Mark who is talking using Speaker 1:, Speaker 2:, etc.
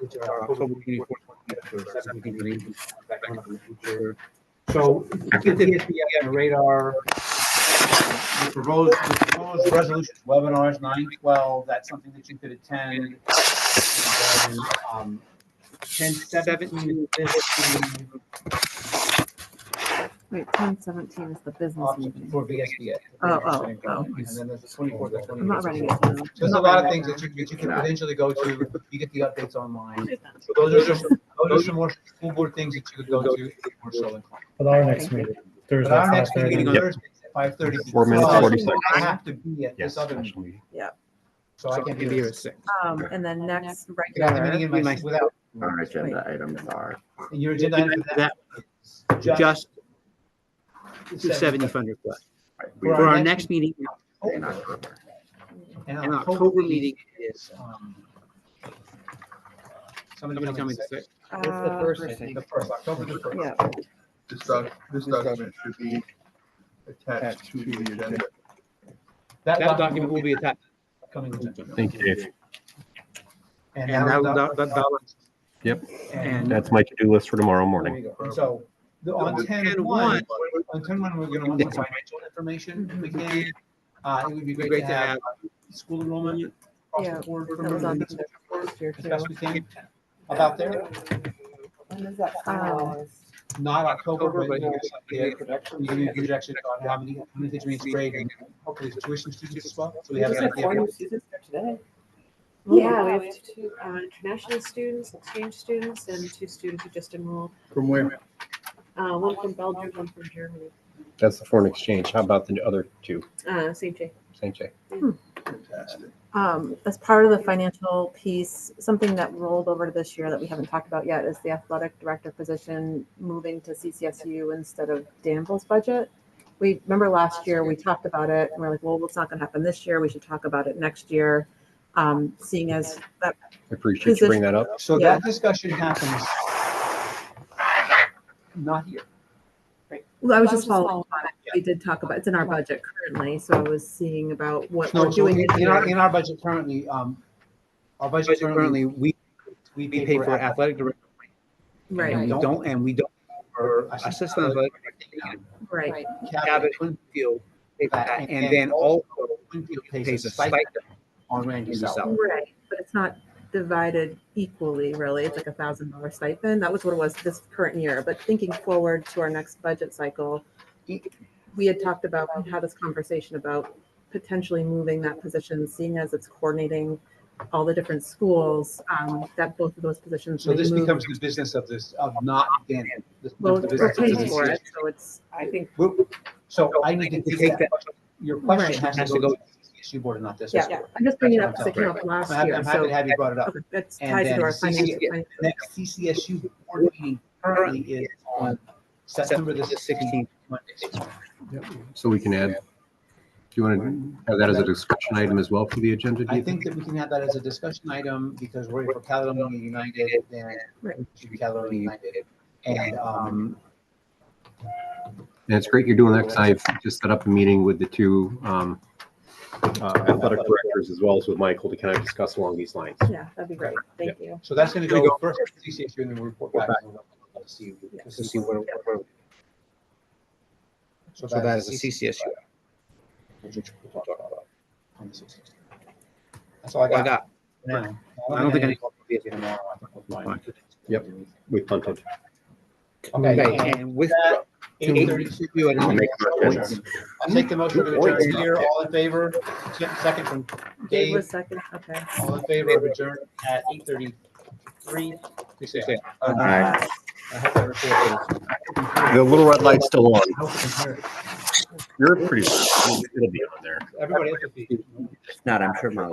Speaker 1: which are
Speaker 2: October
Speaker 1: October
Speaker 2: twenty-fourth, twenty-fifth, seventeenth, and eighteenth.
Speaker 1: back on the future. So get the SBA on radar.
Speaker 3: The proposed, the proposed resolutions, webinars, nine twelve, that's something that you could attend. And then, um,
Speaker 1: Ten seventeen, fifteen,
Speaker 4: Wait, ten seventeen is the business
Speaker 3: option
Speaker 4: meeting.
Speaker 3: for VSBA.
Speaker 4: Oh, oh, oh.
Speaker 3: And then there's the twenty-fourth, the
Speaker 4: I'm not running it
Speaker 3: twenty-eighth.
Speaker 4: down.
Speaker 3: There's a lot of things that you, that you could potentially go to, you get the updates online.
Speaker 4: All
Speaker 3: So Those are some, those are some more school board things that you could go to if you were so inclined.
Speaker 5: But our next meeting, Thursday,
Speaker 3: But our
Speaker 5: five
Speaker 3: next meeting on
Speaker 5: thirty.
Speaker 3: Thursday is at five thirty.
Speaker 6: Four minutes, 40
Speaker 3: I have to be at this
Speaker 6: Yes.
Speaker 3: other meeting,
Speaker 6: special meeting.
Speaker 3: so I can't be
Speaker 1: here
Speaker 3: here.
Speaker 1: at six.
Speaker 4: Um, and then next
Speaker 3: I got the meeting
Speaker 4: regular,
Speaker 3: in my, without,
Speaker 7: Our agenda items are
Speaker 3: and your agenda item for that is just
Speaker 1: Just two seventy fund request.
Speaker 3: For
Speaker 1: For
Speaker 3: our
Speaker 1: our
Speaker 3: next
Speaker 1: next meeting
Speaker 7: in
Speaker 3: October.
Speaker 7: October.
Speaker 3: And
Speaker 1: in October meeting is
Speaker 3: um,
Speaker 1: somebody
Speaker 3: Somebody
Speaker 1: tell me
Speaker 3: coming
Speaker 1: the six.
Speaker 4: uh,
Speaker 3: The first, October the first.
Speaker 4: yeah,
Speaker 8: This doc, this document should be attached to the agenda.
Speaker 1: That document will be attached.
Speaker 3: Coming. agenda.
Speaker 6: Thank you, Dave.
Speaker 1: And that, that, that, that was
Speaker 3: And.
Speaker 6: That's my to-do list for tomorrow
Speaker 3: there
Speaker 6: morning.
Speaker 3: you go. And So, the, on ten
Speaker 1: And
Speaker 3: one,
Speaker 1: one-
Speaker 3: on ten one, we're gonna want the financial information if we can. Uh, it would be great
Speaker 1: Great
Speaker 3: to
Speaker 1: to
Speaker 3: have uh, school enrollment across
Speaker 4: Yeah,
Speaker 3: the board from
Speaker 4: that was on
Speaker 3: the-
Speaker 4: the first year
Speaker 3: as
Speaker 4: too.
Speaker 3: best we can. About there,
Speaker 4: Um,
Speaker 3: not October,
Speaker 1: October,
Speaker 3: but
Speaker 1: but-
Speaker 3: you know, something that you can do projections on how many, how many kids are in each grade and hopefully the tuition students as well. So we have an idea. of-
Speaker 9: Yeah, we have two uh, international students, exchange students, and two students who just enrolled.
Speaker 6: From where?
Speaker 9: Uh, One from Belgium, one from Germany,
Speaker 6: That's the foreign exchange. How about the other two?
Speaker 9: Uh, St. Jay.
Speaker 6: St. J.
Speaker 4: Um, as part of the financial piece, something that rolled over to this year that we haven't talked about yet is the athletic director position moving to CCSU instead of Danville's budget. We, remember last year, we talked about it and we're like, well, it's not gonna happen this year. We should talk about it next year. Um, seeing as that,
Speaker 6: I appreciate you bringing that up.
Speaker 3: So
Speaker 4: Yeah.
Speaker 3: that discussion happens not here.
Speaker 4: well, I was just following, on it. we did talk about, it's in our budget currently, so I was seeing about what
Speaker 3: No,
Speaker 4: we're
Speaker 3: so
Speaker 4: doing.
Speaker 3: in
Speaker 4: this
Speaker 3: in our,
Speaker 4: year.
Speaker 3: in our budget currently, um, our budget
Speaker 1: budget
Speaker 3: currently,
Speaker 1: currently, we,
Speaker 3: we
Speaker 1: we pay for
Speaker 3: athletic.
Speaker 1: athletic director. And
Speaker 4: Right,
Speaker 1: we don't, and we don't, or assistant athletic director,
Speaker 4: right.
Speaker 3: Cabot
Speaker 1: Cabot Winfield, pay for that. and then also
Speaker 3: Winfield
Speaker 1: pays a stipend
Speaker 3: on Randy's
Speaker 1: Randy's
Speaker 3: salary.
Speaker 1: salary.
Speaker 4: Right, but it's not divided equally, really. It's like a thousand dollar stipend. That was what it was this current year, but thinking forward to our next budget cycle, we had talked about, we had this conversation about potentially moving that position, seeing as it's coordinating all the different schools, um, that both of those positions.
Speaker 3: So
Speaker 4: may
Speaker 3: this
Speaker 4: move.
Speaker 3: becomes the business of this, of not Dan. this-
Speaker 4: Well,
Speaker 3: the
Speaker 4: we're
Speaker 3: business of
Speaker 4: paying
Speaker 3: this
Speaker 4: for
Speaker 3: is-
Speaker 4: it, so it's,
Speaker 7: I think
Speaker 3: We're- So I need to take that, your question
Speaker 4: Right.
Speaker 3: has to go to the CSU board and not this
Speaker 4: yeah,
Speaker 3: board.
Speaker 4: I'm just bringing it up
Speaker 3: That's
Speaker 4: because it came up last
Speaker 3: I'm happy-
Speaker 4: year,
Speaker 3: I'm happy
Speaker 4: so.
Speaker 3: to have you brought it up.
Speaker 4: okay, That's
Speaker 3: And
Speaker 4: tied
Speaker 3: then
Speaker 4: to our financial.
Speaker 3: CCA
Speaker 4: plan.
Speaker 3: Next CCSU board meeting currently is on September the sixteenth, Monday.
Speaker 6: So we can add, do you want to have that as a discussion item as well for the agenda? do
Speaker 3: I
Speaker 6: you
Speaker 3: think that we can have that as a discussion item because we're for Caledonia United and
Speaker 4: Right.
Speaker 3: we should be Caledonia United. And um,
Speaker 6: And it's great you're doing that because I just set up a meeting with the two um, uh, athletic directors as well as with Michael to kind of discuss along these lines.
Speaker 4: Yeah, that'd be great. Thank you.
Speaker 3: so that's going to
Speaker 1: Here we
Speaker 3: go first to CCSU and then we'll report back. and we'll see- we'll
Speaker 1: to see what, what-
Speaker 3: So
Speaker 1: so that is a CCSU.
Speaker 3: which we'll talk about on the 16th. That's all I
Speaker 1: I
Speaker 3: got.
Speaker 1: got,
Speaker 3: for now.
Speaker 1: I don't think I need.
Speaker 3: I need tomorrow. I think we'll find it.
Speaker 6: Yep. We punted.
Speaker 3: Okay.
Speaker 1: Okay, and with.
Speaker 3: That-
Speaker 1: to-
Speaker 3: 8:32
Speaker 1: you had
Speaker 7: I'll
Speaker 1: an-
Speaker 7: make my points.
Speaker 3: I'll take the motion to adjourn here. All in favor? Se- Second from
Speaker 4: Dave
Speaker 3: Dave.
Speaker 4: was second, okay.
Speaker 3: All in favor of adjourn at eight thirty-three? Please say aye.
Speaker 7: Aye.
Speaker 3: I hope I recorded it.
Speaker 6: The little red light's still on.
Speaker 3: I hope you can hear it.
Speaker 6: You're pretty loud. It'll be on there.
Speaker 3: Everybody else will be.
Speaker 7: If not, I'm sure my